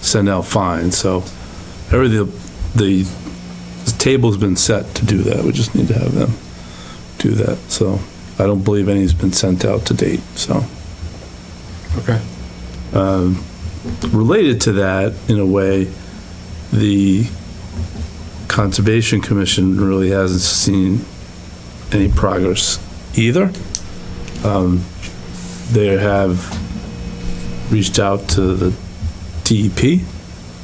send out fines, so everything, the the table's been set to do that, we just need to have them do that, so I don't believe any's been sent out to date, so. Okay. Related to that, in a way, the Conservation Commission really hasn't seen any progress either. Um, They have reached out to the DEP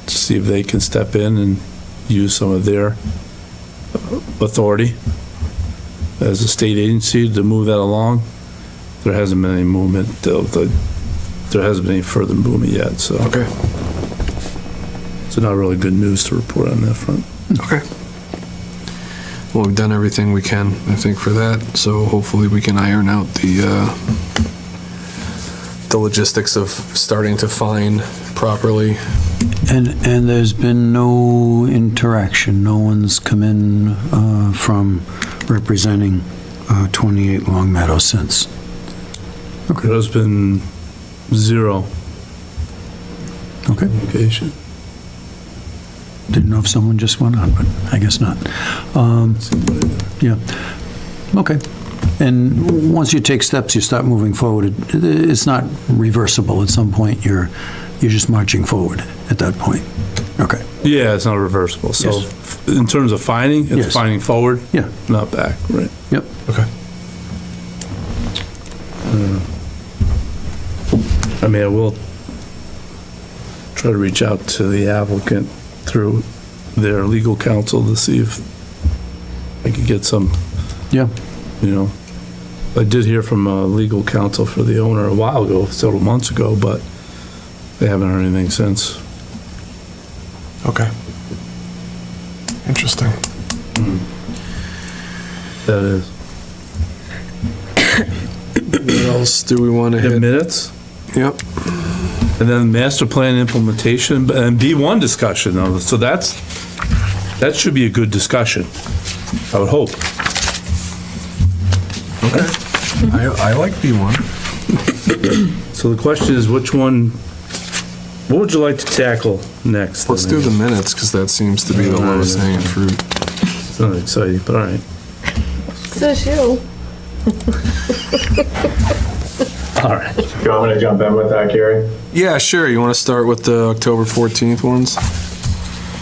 to see if they can step in and use some of their uh, authority as a state agency to move that along. There hasn't been any movement, of the- there hasn't been any further movement yet, so. Okay. So not really good news to report on that front. Okay. Well, we've done everything we can, I think, for that, so hopefully we can iron out the, uh, the logistics of starting to fine properly. And, and there's been no interaction, no one's come in uh, from representing uh, 28 Long Meadow since. There's been zero Okay, communication. didn't know if someone just went on, but I guess not. Um, Yeah, okay. And once you take steps, you start moving forward. It- It's not reversible. At some point, you're, you're just marching forward at that point. Okay, Yeah, it's not reversible. So Yes. f- in terms of finding, it's Yes. finding forward, yeah, not back, right? yep. Okay. I mean, I will try to reach out to the applicant through their legal counsel to see if I could get some Yeah, you know. I did hear from uh, legal counsel for the owner a while ago, several months ago, but they haven't heard anything since. Okay. Interesting. That is. What else do we want to The hit? minutes, Yep. and then master plan implementation, and B1 discussion, though, so that's, that should be a good discussion, I would hope. I, I like B1. So the question is, which one, what would you like to tackle next? Let's do the minutes, because that seems to be the lowest hanging fruit. It's not exciting, but all right. Says you. All right. You want me to jump in with that, Gary? Yeah, sure. You want to start with the October 14th ones?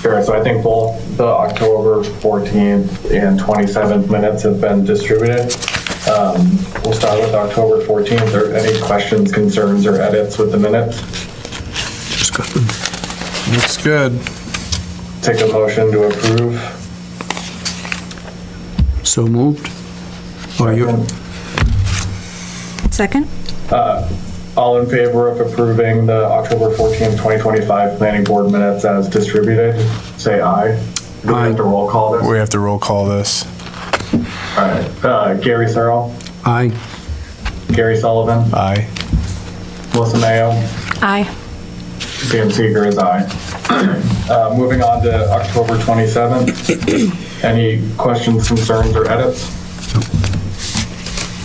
Sure, so I think both the October 14th and 27th minutes have been distributed. Um, We'll start with October 14th. Are any questions, concerns, or edits with the minutes? Looks good. Take a motion to approve. so moved? Or you- Second? All in favor of approving the October 14th, 2025 planning board minutes as distributed, say aye. Do we have to roll call this? We have to roll call this. All right, Uh, Gary Searle, Aye. Gary Sullivan, Aye. Melissa Mayo, Aye. Dan Seeger is aye. Uh, Moving on to October 27th. Any questions, concerns, or edits?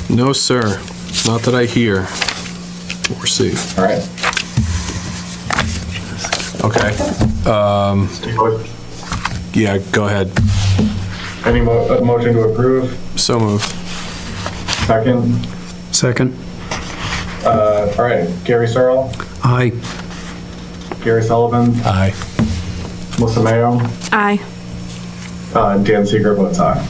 No, sir. Not that I hear or see. All right. Okay. Yeah, go ahead. Any mo- uh, motion to approve? So move. Second? Second? Uh, All right, Gary Searle, Aye. Gary Sullivan, Aye. Melissa Mayo, Aye. uh, Dan Seeger votes aye.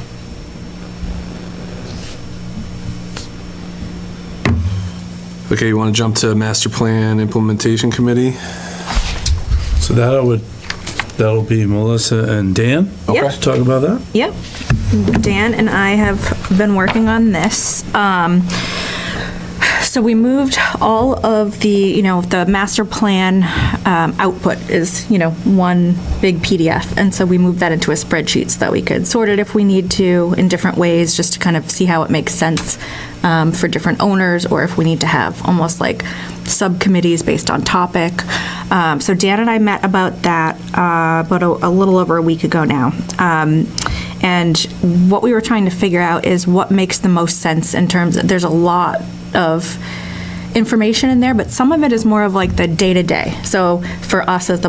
Okay, you want to jump to Master Plan Implementation Committee? So that I would, that'll be Melissa and Dan Okay. to talk about that? Yep. Dan and I have been working on this. Um, So we moved all of the, you know, the master plan um, output is, you know, one big PDF. And so we moved that into a spreadsheet so that we could sort it if we need to in different ways, just to kind of see how it makes sense um, for different owners, or if we need to have almost like subcommittees based on topic. Um, So Dan and I met about that uh, about a a little over a week ago now. Um, and what we were trying to figure out is what makes the most sense in terms there's a lot of information in there, but some of it is more of like the day to day. So for us as the